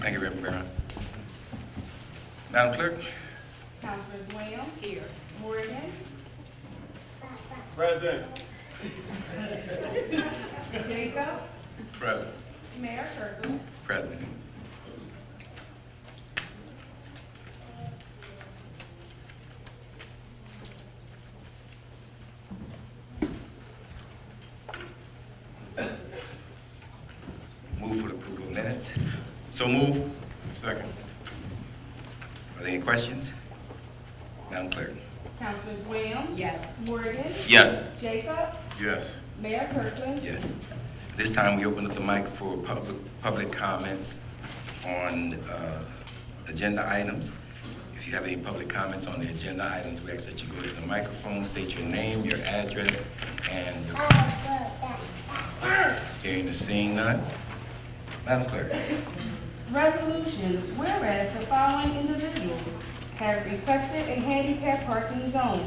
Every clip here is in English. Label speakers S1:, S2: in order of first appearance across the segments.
S1: Thank you, Reverend Brown. Madam Clerk?
S2: Councilors Williams. Here. Morgan.
S3: Present.
S2: Jacobs.
S1: Present.
S2: Mayor Kirkland.
S1: President. Move for the approval of minutes. So move. Second. Are there any questions? Madam Clerk?
S2: Councilors Williams.
S4: Yes.
S2: Morgan.
S1: Yes.
S2: Jacobs.
S1: Yes.
S2: Mayor Kirkland.
S1: Yes. This time, we open up the mic for public, public comments on uh, agenda items. If you have any public comments on the agenda items, we ask that you go to the microphone, state your name, your address, and your comments. Hearing and seeing none. Madam Clerk.
S2: Resolution, whereas the following individuals have requested a handicap parking zone.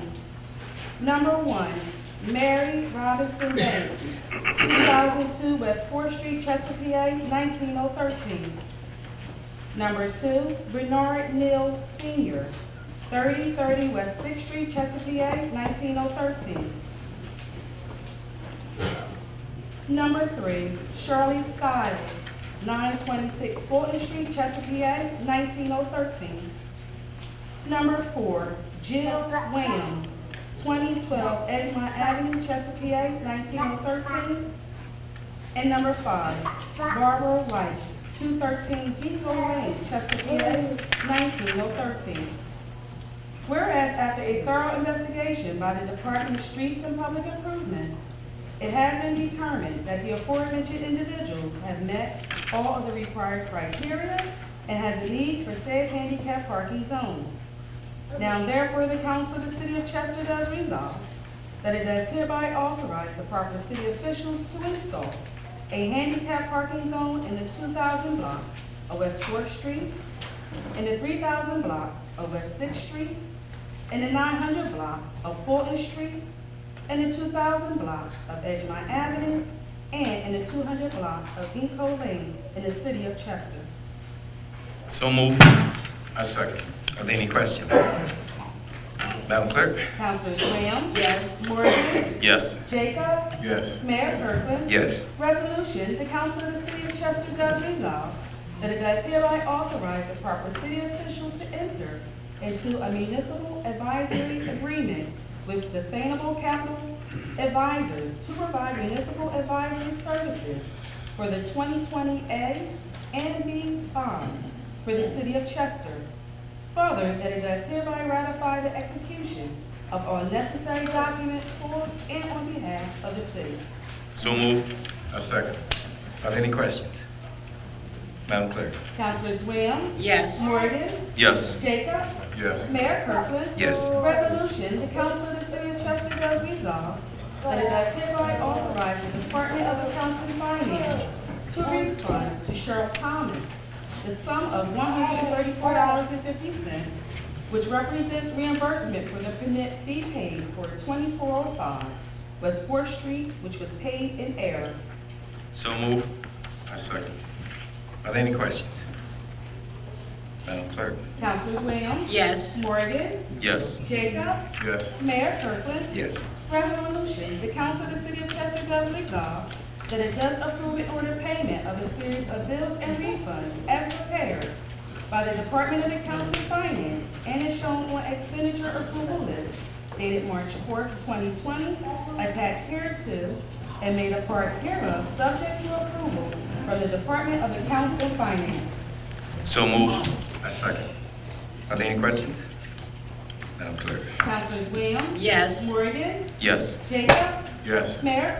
S2: Number one, Mary Robinson Banks, 2002 West Fourth Street, Chester, PA, 19013. Number two, Bernard Neal Senior, 3030 West Sixth Street, Chester, PA, 19013. Number three, Shirley Stiles, nine twenty-six Fulton Street, Chester, PA, nineteen oh thirteen. Number four, Jill Williams, twenty twelve Edgemont Avenue, Chester, PA, nineteen oh thirteen. And number five, Barbara White, two thirteen Depot Lane, Chester, PA, nineteen oh thirteen. Whereas after a thorough investigation by the Department of Streets and Public Improvements, it has been determined that the aforementioned individuals have met all of the required criteria and has a need for said handicap parking zone. Now therefore, the council of the city of Chester does resolve that it does hereby authorize the proper city officials to install a handicap parking zone in the two thousand block of West Fourth Street, in the three thousand block of West Sixth Street, in the nine hundred block of Fulton Street, in the two thousand block of Edgemont Avenue, and in the two hundred block of Ginkgo Lane in the city of Chester.
S1: So move. I second. Are there any questions? Madam Clerk?
S2: Councilors Williams? Yes. Morgan?
S1: Yes.
S2: Jacobs?
S1: Yes.
S2: Mayor Kirkland?
S1: Yes.
S2: Resolution, the council of the city of Chester does resolve that it does hereby authorize the proper city official to enter into a municipal advisory agreement with Sustainable Capital Advisors to provide municipal advisory services for the 2020A and B bonds for the city of Chester Further, that it does hereby ratify the execution of all necessary documents for and on behalf of the city.
S1: So move. I second. Are there any questions? Madam Clerk?
S2: Councilors Williams?
S4: Yes.
S2: Morgan?
S1: Yes.
S2: Jacobs?
S1: Yes.
S2: Mayor Kirkland?
S1: Yes.
S2: Resolution, the council of the city of Chester does resolve that it does hereby authorize the Department of Accounts and Finance to refund to Cheryl Thomas the sum of one hundred and thirty-four dollars and fifty cents, which represents reimbursement for the fee paid for twenty-four oh five West Fourth Street, which was paid in error.
S1: So move. I second. Are there any questions? Madam Clerk?
S2: Councilors Williams?
S4: Yes.
S2: Morgan?
S1: Yes.
S2: Jacobs?
S1: Yes.
S2: Mayor Kirkland?
S1: Yes.
S2: Resolution, the council of the city of Chester does resolve that it does approve and order payment of a series of bills and refunds as prepared by the Department of Accounts and Finance and is shown on expenditure approval list dated March fourth, twenty twenty, attached hereto and made a part hereof, subject to approval from the Department of Accounts and Finance.
S1: So move. I second. Are there any questions? Madam Clerk?
S2: Councilors Williams?
S4: Yes.
S2: Morgan?
S1: Yes.
S2: Jacobs?
S1: Yes.
S2: Mayor